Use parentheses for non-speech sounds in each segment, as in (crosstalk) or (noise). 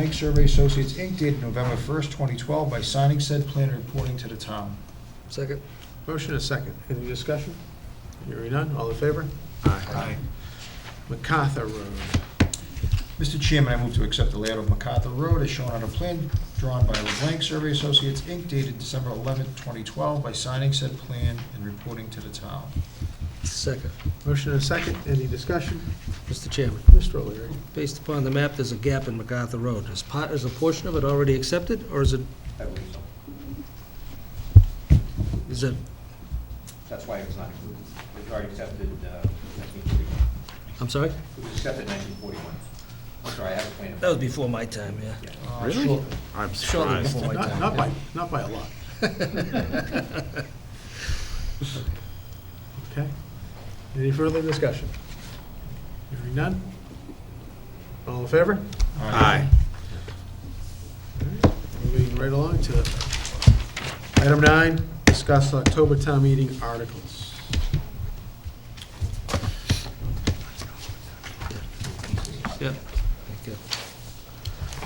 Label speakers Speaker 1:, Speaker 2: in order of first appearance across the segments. Speaker 1: Bank Survey Associates, Inc., dated November 1st, 2012, by signing said plan and reporting to the town.
Speaker 2: Second.
Speaker 3: Motion and a second. Any discussion? Hearing none, all in favor? MacArthur Road.
Speaker 1: Mr. Chairman, I move to accept the layout of MacArthur Road as shown on a plan drawn by LeBlanc Survey Associates, Inc., dated December 11th, 2012, by signing said plan and reporting to the town.
Speaker 2: Second.
Speaker 3: Motion and a second. Any discussion?
Speaker 2: Mr. Chairman,
Speaker 3: Mr. O'Leary.
Speaker 2: based upon the map, there's a gap in MacArthur Road. Is part, is a portion of it already accepted, or is it,
Speaker 4: I believe so.
Speaker 2: is it,
Speaker 4: That's why it was not included. It was already accepted uh, 1941.
Speaker 2: I'm sorry?
Speaker 4: It was accepted 1941. I'm sorry, I have a plan.
Speaker 2: That was before my time, yeah.
Speaker 4: Yeah.
Speaker 1: Uh,
Speaker 5: Really?
Speaker 1: short-
Speaker 5: I'm
Speaker 2: Shortly
Speaker 5: surprised.
Speaker 2: before my
Speaker 3: Not
Speaker 2: time.
Speaker 3: not by, not by a lot. Okay. Any further discussion? Hearing none? All in favor?
Speaker 5: Aye.
Speaker 3: All right, Moving right along to item nine, discuss October town meeting articles.
Speaker 2: Yep. (laughs) Thank you.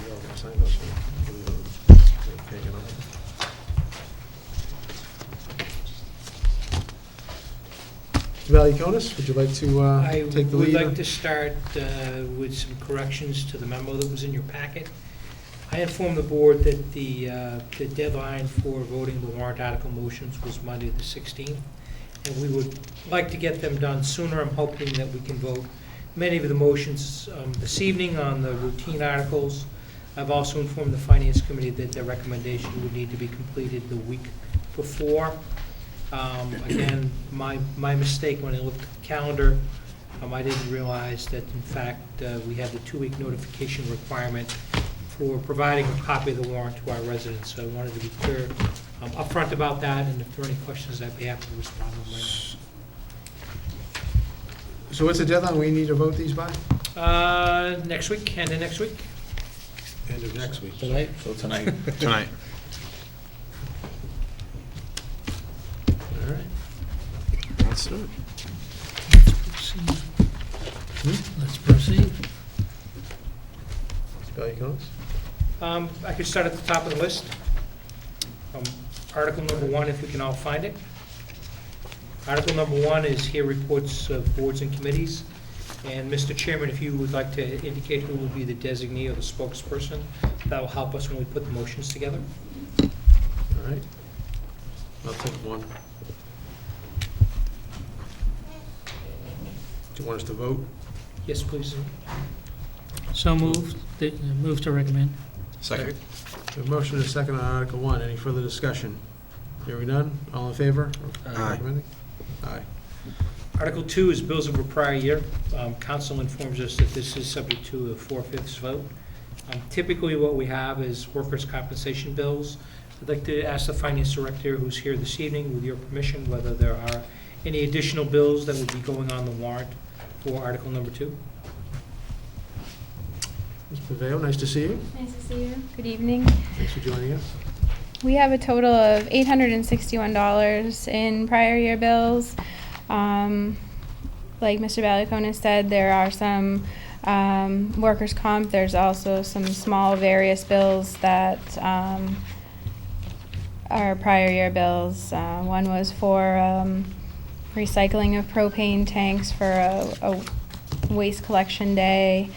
Speaker 3: You all can sign those. Okay, you know. Valiakonis, would you like to uh,
Speaker 6: I
Speaker 3: take the
Speaker 6: would
Speaker 3: lead?
Speaker 6: like to start uh, with some corrections to the memo that was in your packet. I informed the board that the uh, the deadline for voting the warrant article motions was Monday, the 16th, and we would like to get them done sooner. I'm hoping that we can vote many of the motions um, this evening on the routine articles. I've also informed the Finance Committee that their recommendation would need to be completed the week before. Um, Again, my, my mistake when I looked at the calendar, um, I didn't realize that in fact, uh, we had the two-week notification requirement for providing a copy of the warrant to our residents, so I wanted to be clear um, upfront about that, and if there are any questions, I'd be happy to respond to them later.
Speaker 3: So what's the deadline we need to vote these by?
Speaker 6: Uh, next week, end of next week?
Speaker 3: End of next week.
Speaker 2: Tonight?
Speaker 1: So tonight,
Speaker 5: Tonight.
Speaker 3: All right.
Speaker 5: Let's do it.
Speaker 3: Hmm?
Speaker 2: Let's proceed.
Speaker 3: Valiakonis?
Speaker 6: Um, I could start at the top of the list. Um, Article number one, if we can all find it. Article number one is here reports of boards and committees. And Mr. Chairman, if you would like to indicate who will be the designee or the spokesperson, that will help us when we put the motions together.
Speaker 3: All right. I'll take one. Do you want us to vote?
Speaker 6: Yes, please.
Speaker 7: So moved, Th- move to recommend.
Speaker 5: Second.
Speaker 3: We have A motion and a second on Article 1. Any further discussion? Hearing none? All in favor? of
Speaker 5: Aye.
Speaker 3: recommending? Aye.
Speaker 6: Article two is bills of a prior year. Um, Council informs us that this is subject to a four-fifths vote. Um, Typically, what we have is workers' compensation bills. I'd like to ask the finance director, who's here this evening, with your permission, whether there are any additional bills that would be going on the warrant for article number two.
Speaker 3: Ms. Paveo, nice to see you.
Speaker 8: Nice to see you. Good evening.
Speaker 3: Thanks for joining us.
Speaker 8: We have a total of $861 in prior year bills. Um, Like Mr. Valiakonis said, there are some um, workers' comp, there's also some small various bills that um, are prior year bills. Uh, One was for um, recycling of propane tanks for a a waste collection day.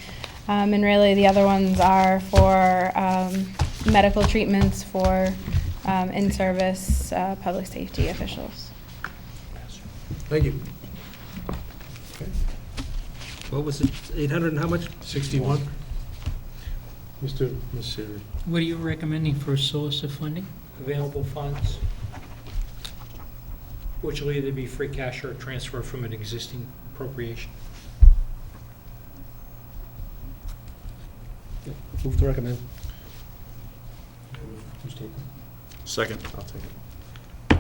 Speaker 8: Um, and really, the other ones are for um, medical treatments for um, in service uh, public safety officials.
Speaker 3: Thank you.
Speaker 2: What was it, 800 and how much?
Speaker 3: 61. Mr. Messeri.
Speaker 7: What are you recommending for a source of funding?
Speaker 6: Available funds, which will either be free cash or a transfer from an existing appropriation.
Speaker 2: Move to recommend.
Speaker 5: Second.
Speaker 3: I'll take it.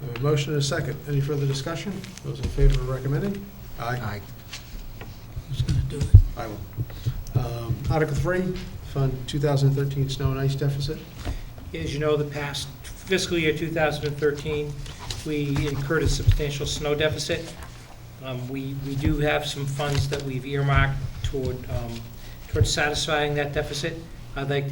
Speaker 3: We have A motion and a second. Any further discussion? Those in favor of recommending? Aye.
Speaker 2: Aye.
Speaker 7: Who's going to do it?
Speaker 3: I will. Um, Article 3, Fund 2013 Snow and Ice Deficit.
Speaker 6: As you know, the past fiscal year 2013, we incurred a substantial snow deficit. Um, We we do have some funds that we've earmarked toward um, toward satisfying that deficit. I'd like